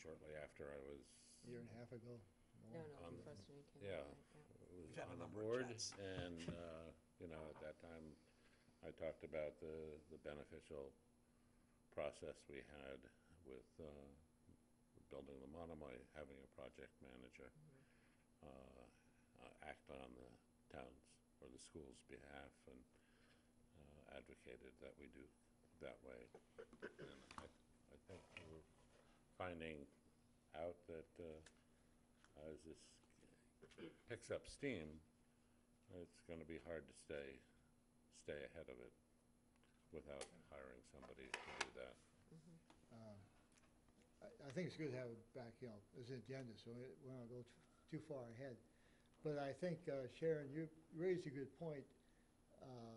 shortly after I was, year and a half ago. No, more. no, Um, from first weekend. yeah. yeah. was had on a the number of board, chats. and, uh, you know, at that time, I talked about the, the beneficial process we had with uh, building the Monomoy, having a project manager Mm-hmm. uh, uh, act on the town's or the school's behalf, and uh, advocated that we do that way. And I I think we're finding out that uh, as this picks up steam, it's going to be hard to stay, stay ahead of it without hiring somebody to do that. Um, I, I think it's good to have it back, you know, as an agenda, so it, we don't go too, too far ahead. But I think, uh, Sharon, you raised a good point, uh,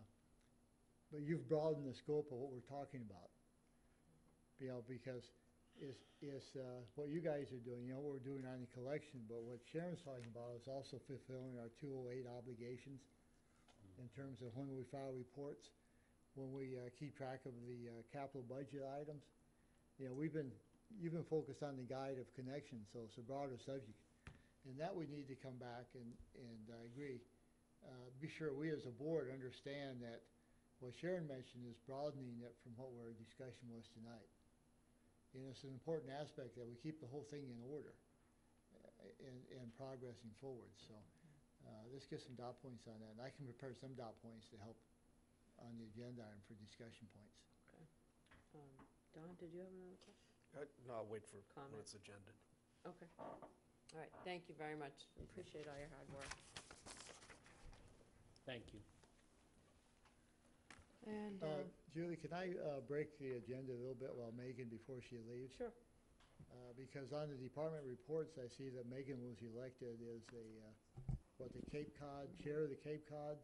but you've broadened the scope of what we're talking about. You know, because it's, it's, uh, what you guys are doing, you know, what we're doing on the collection, but what Sharon's talking about is also fulfilling our two oh eight obligations in terms of when we file reports, when we, uh, keep track of the, uh, capital budget items. You know, we've been you've been focused on the guide of connection, so it's a broader subject. And that we need to come back and, and I agree. Uh, be sure we as a board understand that what Sharon mentioned is broadening it from what our discussion was tonight. And it's an important aspect that we keep the whole thing in order uh, and, and progressing forward, so. Uh, let's get some dot points on that, and I can prepare some dot points to help on the agenda item for discussion points. Um, Don, did you have another question? Uh, No, I'll wait for when Comment. it's agenda. Okay. All right, thank you very much. Appreciate all your hard work. Thank you. And, Uh, um, Julie, can I uh, break the agenda a little bit while Megan, before she leaves? sure, Uh, Because on the department reports, I see that Megan was elected as a, uh, what, the Cape Cod, Chair of the Cape Cod?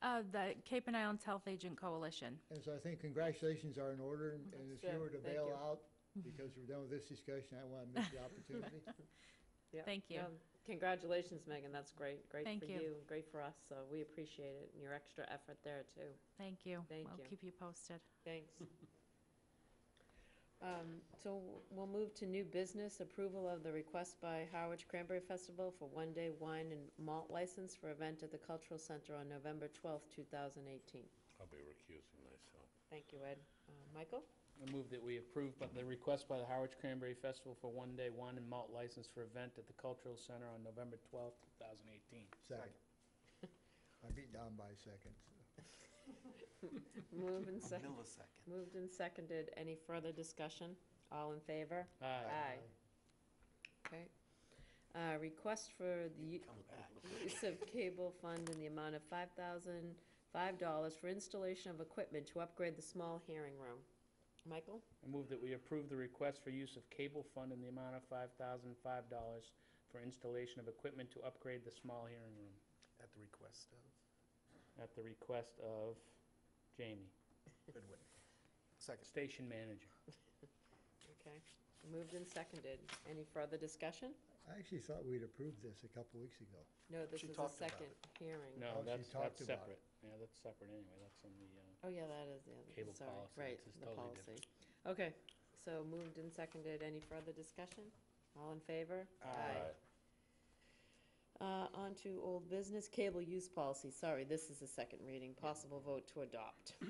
Uh, the Cape and Islands Health Agent Coalition. And so I think congratulations are in order, and and if you Sure, were to thank bail you. out, because we're done with this discussion, I want to miss the opportunity. yeah. Thank you. No, Congratulations, Megan, that's great. Great Thank for you. you, and great for us, so we appreciate it, and your extra effort there, too. Thank you. Thank we'll you. keep you posted. Thanks. Um, So we'll move to new business, approval of the request by Harwich Cranberry Festival for one-day wine and malt license for event at the Cultural Center on November 12th, 2018. I'll be recusing myself. Thank you, Ed. Uh, Michael? I move that we approve but the request by the Howard Cranberry Festival for one-day wine and malt license for event at the Cultural Center on November twelfth, two thousand eighteen. Second. I beat Don by a second. so. Moved and seconded, Millisecond. moved and seconded. Any further discussion? All in favor? Aye. Okay. Uh, request for the Come back. use of cable fund in the amount of five thousand, five dollars for installation of equipment to upgrade the small hearing room. Michael? I move that we approve the request for use of cable fund in the amount of five thousand five dollars for installation of equipment to upgrade the small hearing room At the request of at the request of Jamie, Goodwin. Second. station manager. Okay. Moved and seconded. Any further discussion? I actually thought we'd approved this a couple weeks ago. No, this She is a talked about second hearing. Oh, No, she that's, talked that's about it. separate. Yeah, that's separate anyway. That's in the, uh, Oh, yeah, that is the other, Cable sorry, policy, right, it's just the totally policy. Okay, so moved and seconded. Any further discussion? All in favor? Aye. Uh, on to old business, cable use policy. Sorry, this is the second reading. Possible vote to adopt. do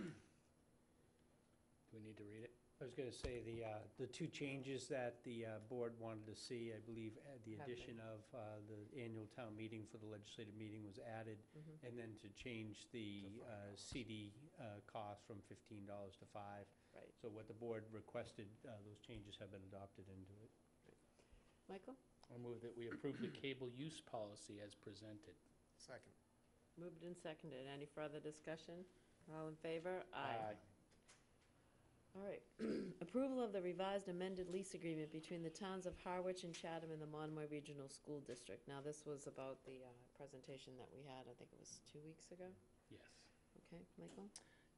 we need to read it? I was going to say, the, uh, the two changes that the uh, board wanted to see, I believe, uh, the Have addition of uh, the annual town meeting for the legislative meeting was added, and then to change the uh, CD uh, cost from $15 to 5 Right. So what the board requested, uh, those changes have been adopted into it. Michael? I move that we approve the cable use policy as presented. Second. Moved and seconded. Any further discussion? All in favor? All right. Approval of the revised amended lease agreement between the towns of Harwich and Chatham and the Monomoy Regional School District. Now, this was about the uh, presentation that we had, I think it was two weeks ago. Yes. Okay, Michael?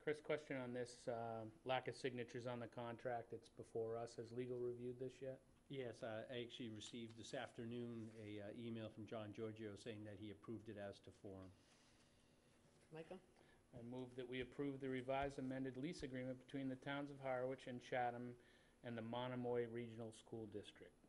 Chris, question on this, um, lack of signatures on the contract that's before us. Has legal reviewed this yet? Yes, I I actually received this afternoon a uh, email from John Giorgio saying that he approved it as to form. Michael? I move that we approve the revised amended lease agreement between the towns of Harwich and Chatham and the Monomoy Regional School District.